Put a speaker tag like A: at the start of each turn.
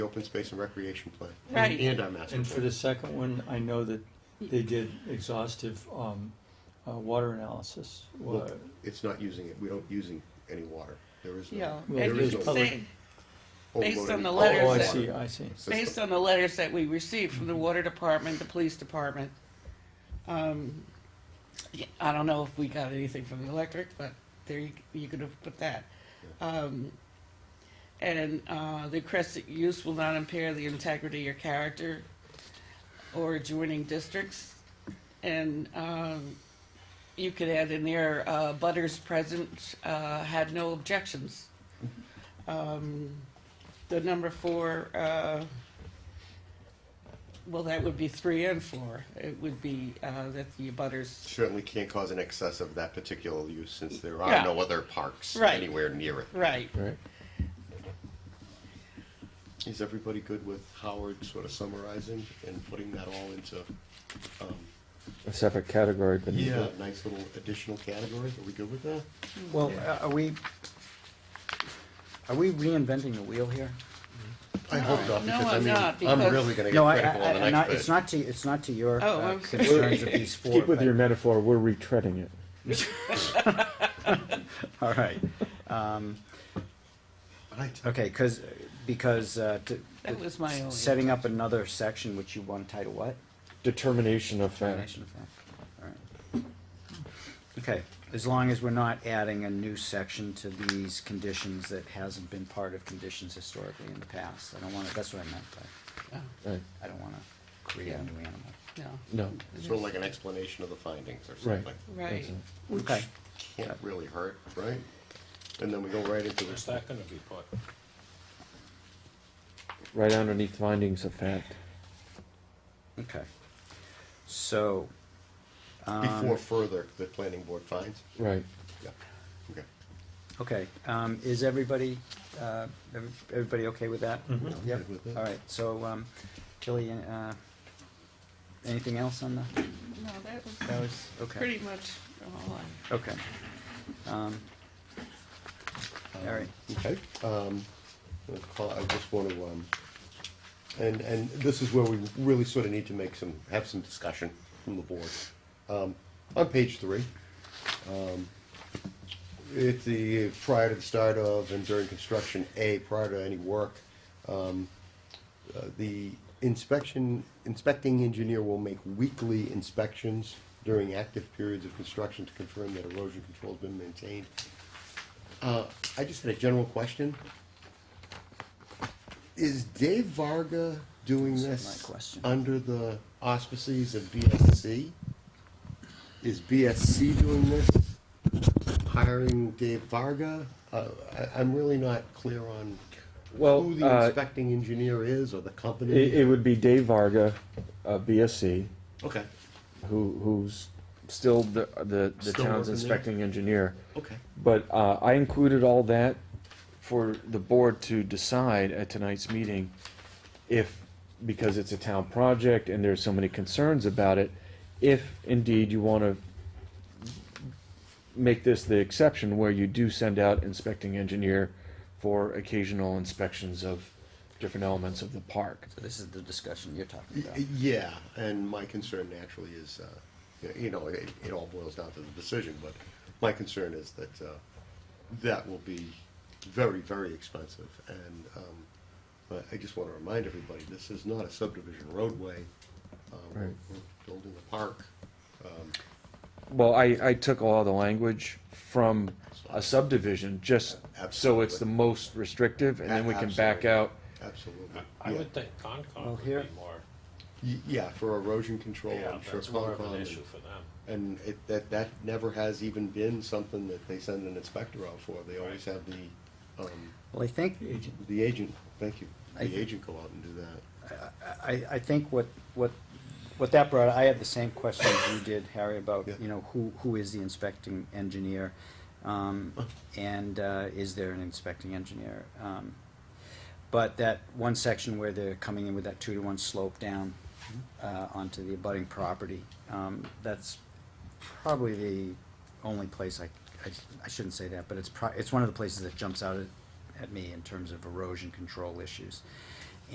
A: the open space and recreation plan.
B: Right.
A: And our master
C: And for
A: plan.
C: the second one, I know that they did exhaustive um, uh, water analysis. Uh, Wa-
A: Well, It's not using it, we don't using any water, there is
B: Yeah,
A: no.
C: Well,
B: and
A: there is
B: you
C: there's
A: no
B: can
C: public-
B: say,
A: overload
B: based on the
A: of
B: letters
C: Oh, I
A: water.
B: that-
C: see, I see.
A: It's just
B: based on the letters that we received from the water department, the police department, um, yeah, I don't know if we got anything from the electric, but there you, you could have put that. Um, and, uh, the crescent use will not impair the integrity or character or adjoining districts. And, um, you could add in there, uh, butters present, uh, had no objections. Um, the number four, uh, well, that would be three and four. It would be uh, that the abutters,
A: Certainly can't cause an excess of that particular use, since there
B: Yeah.
A: are no other parks
B: Right.
A: anywhere near it.
B: right,
C: Right.
A: Is everybody good with Howard sort of summarizing and putting that all into, um,
D: A separate category beneath
A: a
D: it.
A: nice little additional category? Are we good with that?
E: Well, uh, are we, are we reinventing the wheel here?
A: I hope not,
B: No,
A: because I
B: I'm
A: mean,
B: not,
A: I'm
B: because-
A: really gonna
E: No,
A: get
E: I,
A: critical on
E: I,
A: the
E: I'm
A: next
E: not,
A: page.
E: it's not to, it's not to your
B: Oh,
E: uh,
B: okay.
E: concerns of these four.
D: Keep with
E: but-
D: your metaphor, we're retreading it.
E: All right, um,
A: Right.
E: okay, cause, because, uh, to.
B: That was my only
E: Setting up another section, which you want to title what?
D: Determination of fact.
E: Definition of fact. All right. Okay, as long as we're not adding a new section to these conditions that hasn't been part of conditions historically in the past. I don't wanna, that's what I meant by,
B: no,
D: Right.
E: I don't wanna create a new animal.
B: Uh, no,
D: No,
A: Sort of like an explanation of the findings or
D: right.
A: something.
B: right.
E: Okay,
A: Can't really hurt, right? And then we go right into this.
F: Where's that gonna be put?
D: Right underneath findings of fact.
E: okay. So,
A: Before further, the planning board finds?
D: Right.
A: Yeah, okay.
E: okay, um, is everybody, uh, every- everybody okay with that?
A: Yeah.
E: Yep, all right, so, um, Tilly, uh, anything else on the,
B: No, that was
E: that was, okay.
B: pretty much all I.
E: Okay. Um, All right.
A: Okay, um, I'll call- I just want to, um, and, and this is where we really sort of need to make some, have some discussion from the board. Um, on page three, um, it's the, prior to the start of and during construction, A, prior to any work, um, uh, the inspection, inspecting engineer will make weekly inspections during active periods of construction to confirm that erosion control's been maintained uh, I just had a general question. Is Dave Varga doing
E: That's
A: this
E: my question.
A: under the auspices of BSC? Is BSC doing this? Hiring Dave Varga? Uh, I, I'm really not clear on
D: Well,
A: who the
D: uh,
A: inspecting engineer is or the company.
D: It, it would be Dave Varga, uh, BSC,
A: okay,
D: who, who's still the, the, the
A: Still
D: town's
A: working there?
D: inspecting engineer.
A: okay.
D: But uh, I included all that for the board to decide at tonight's meeting if, because it's a town project and there's so many concerns about it, if indeed you want to make this the exception where you do send out inspecting engineer for occasional inspections of different elements of the park.
E: So this is the discussion you're
A: Y-
E: talking about.
A: Yeah, and my concern naturally is, uh, y- you know, it, it all boils down to the decision, but my concern is that, uh, that will be very, very expensive, and, um, but I just wanna remind everybody, this is not a subdivision roadway. Uh, we're-
D: Right.
A: We're building a park, um,
D: Well, I, I took all the language from a subdivision, just so it's
A: Absolutely.
D: the most restrictive, and then we can back
A: Absolutely.
D: out
A: absolutely.
F: I- I
A: Yeah.
F: would think
E: Well,
F: Concom would
E: here-
F: be more,
A: Y- Yeah, for erosion control,
F: yeah,
A: Oh, I'm sure.
F: that's more of
A: Concom
F: an
A: and-
F: issue for them.
A: And it, that, that never has even been something that they send an inspector out for, they always have the, um,
E: Well, I think,
C: Agent.
A: The agent, thank you.
E: I-
A: The agent go out and do that.
E: I, I think what, what, what that brought, I had the same question as you did, Harry, about,
A: Yeah.
E: you know, who, who is the inspecting engineer? Um, and, uh, is there an inspecting engineer? Um, but that one section where they're coming in with that two to one slope down, uh, onto the abutting property, um, that's probably the only place I, I, I shouldn't say that, but it's pro, it's one of the places that jumps out at, at me in terms of erosion control issues.